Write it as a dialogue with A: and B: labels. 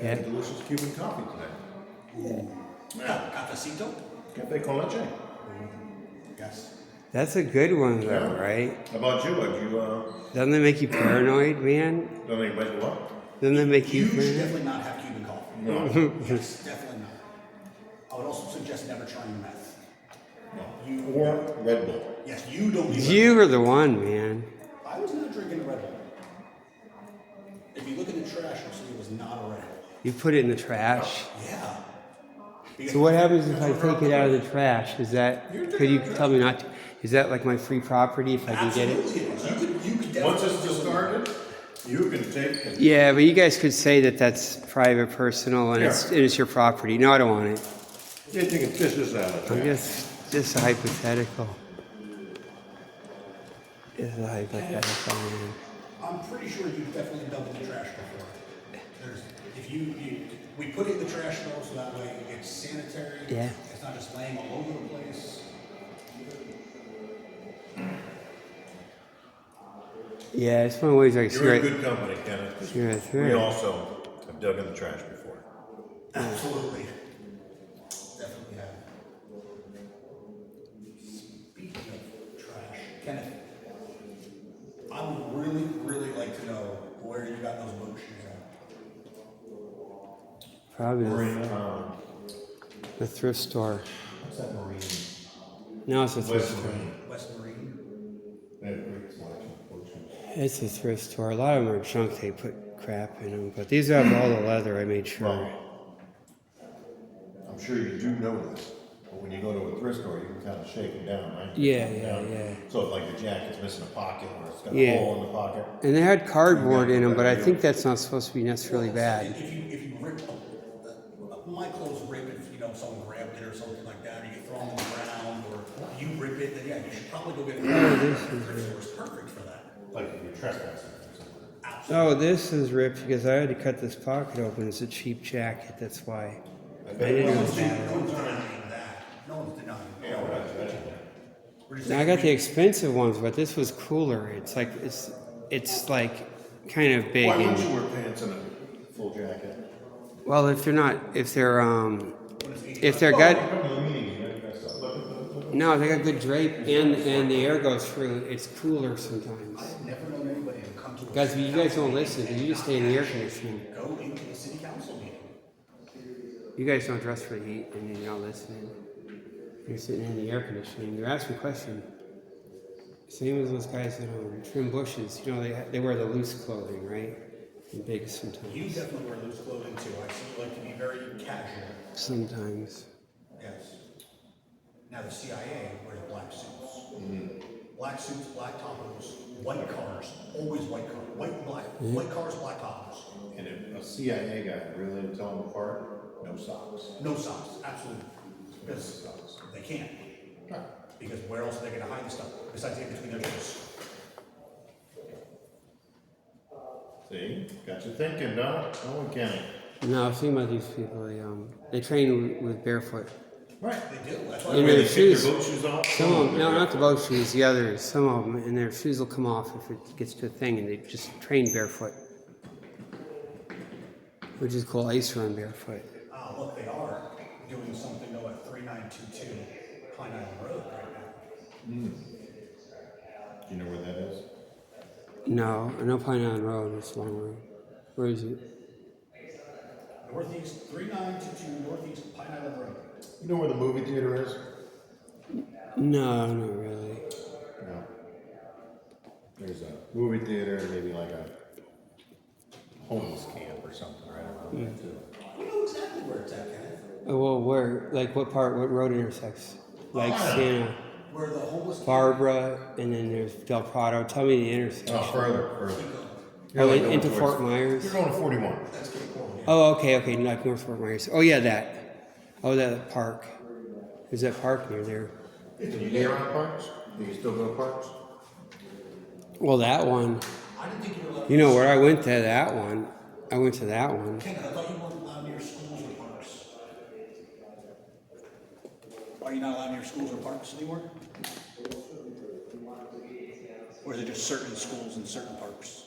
A: Yeah.
B: had delicious Cuban coffee today.
C: Yeah, cafecito?
B: Cafe con leche.
C: Yes.
A: That's a good one though,
B: Yeah.
A: right?
B: How about you? Have you uh,
A: Doesn't that make you paranoid, man?
B: done anybody what?
A: Doesn't that make you
C: You should
A: paranoid?
C: definitely not have Cuban coffee.
B: No.
C: Yes, definitely not. I would also suggest never trying meth.
B: no. Or Red Bull.
C: Yes, you don't do
A: You were the one, man.
C: that. I was not drinking a Red Bull. If you look in the trash, you'll see it was not a Red Bull.
A: You put it in the trash.
C: Yeah. Because-
A: So what happens if I take it out of the trash? Is that could you tell me not to? Is that like my free property if I can get it?
C: Absolutely, it is. You could, you could definitely.
B: Once it's discarded, you can take and
A: Yeah, but you guys could say that that's private, personal, and it's
B: Yeah.
A: and it's your property. No, I don't want it.
B: yeah, you can fish this out of
A: I'm
B: there.
A: just just a hypothetical. It's a hypothetical. Man.
C: I'm pretty sure you've definitely dumped in the trash before. There's, if you, you, we put it in the trash though, so that way it's sanitary.
A: Yeah.
C: It's not just laying all over the place.
A: Yeah, it's one of the ways I
B: You're in
A: cigarette.
B: good company, Kenneth. 'cause
A: You're right,
B: We
A: right.
B: also have dug in the trash before.
C: Absolutely. Definitely have. Speaking of trash, Kenneth, I would really, really like to know where you got those boat shoes at.
A: Probably
B: We're
A: the,
B: in um,
A: the thrift store.
B: what's that marine?
A: No, it's a
B: West
A: thrift store.
B: Marine.
C: West Marine?
B: They have a great selection of boat shoes.
A: It's a thrift store. A lot of them are junk. They put crap in them, but these have all the leather. I made sure.
B: Well, I'm sure you do know this, but when you go to a thrift store, you can kind of shake them down, right?
A: Yeah,
B: Shake 'em
A: yeah,
B: down.
A: yeah.
B: So if like your jacket's missing a pocket or it's got
A: Yeah.
B: a hole in the pocket,
A: And they had cardboard in them, but I think that's not supposed to be necessarily bad.
C: If you, if you rip, uh, my clothes rip if, you know, someone grabbed it or something like that, or you throw them on the ground, or you rip it, then yeah, you should probably go get. Oh,
A: this
C: is. perfect for that.
B: like if you're trespassing or something.
A: Oh, this is ripped because I had to cut this pocket open. It's a cheap jacket. That's why.
B: I
A: I
B: bet
A: didn't
C: No
A: know
B: you
C: one's
A: it's bad.
C: denying no one's denying that. No one's denying
B: yeah,
C: that.
B: we're not judging that.
C: We're just
A: Now I got the
C: saying-
A: expensive ones, but this was cooler. It's like it's it's like kind of big.
B: Why wouldn't
A: And,
B: you wear pants and a full jacket?
A: well, if they're not, if they're um, if they're
B: Oh,
A: got
B: come to the meeting, you gotta dress up. Look at the- look at the-
A: no, they got good drape and and the air goes through. It's cooler sometimes.
C: I've never known anybody who come to. a
A: Guys, you guys don't
C: city
A: listen.
C: council
A: You just stay in the air conditioning.
C: meeting and Go into the city council meeting.
A: You guys don't dress for the heat, and you're not listening. You're sitting in the air conditioning. You're asking questions. Same as those guys that um, trim bushes. You know, they they wear the loose clothing, right? And big
C: You
A: sometimes.
C: definitely wear loose clothing too. I see you like to be very casual.
A: Sometimes.
C: Yes. Now the CIA wears black suits.
A: Mm-hmm.
C: Black suits, black tacos, white cars, always white cars, white, black,
A: Mm-hmm.
C: white cars, black tacos.
B: And if a CIA guy really would tell them apart, no socks.
C: No socks, absolutely. Because they can't. Because where else are they gonna hide the stuff besides in between their toes?
B: See, got you thinking, no, no one can.
A: No, I've seen about these people. They um they train with, with barefoot.
B: Right.
C: They do, that's
A: You
B: Where
A: know,
C: why.
B: they
A: the
B: take
A: shoes-
B: their boat shoes off.
A: Some of them, no,
B: they're-
A: not the boat shoes. The others. Some of them, and their shoes will come off if it gets to a thing, and they just train barefoot, which is cool. I used to run barefoot.
C: Ah, look, they are doing something though at three nine two two Pine Island Road right now.
B: Do you know where that is?
A: No, I know Pine Island Road. It's a long road. Where is it?
C: Northeast, three nine two two Northeast Pine Island Road.
B: You know where the movie theater is?
A: No, not really.
B: No. There's a movie theater and maybe like a homeless camp or something right around there
A: Hmm.
B: too.
C: We know exactly where it's at, Kenneth.
A: Oh, well, where? Like what part? What road intersects? Like Santa
C: Where the homeless.
A: Barbara, and then there's Del Prado. Tell me the intersection.
B: No, further, further.
A: Oh,
B: like
A: in-
B: going
A: into
B: towards-
A: Fort Myers.
B: You're going to forty-one.
C: That's Cape Coral, yeah.
A: Oh, okay, okay, like North Fort Myers. Oh, yeah, that. Oh, that park. There's that park near there.
B: Do you get around parks? Do you still go to parks?
A: Well, that one.
C: I didn't think you were allowed.
A: You know where I went to that one? I went to that one.
C: Kenneth, I thought you weren't allowed near schools or parks. Are you not allowed near schools or parks anymore? Or is it just certain schools and certain parks?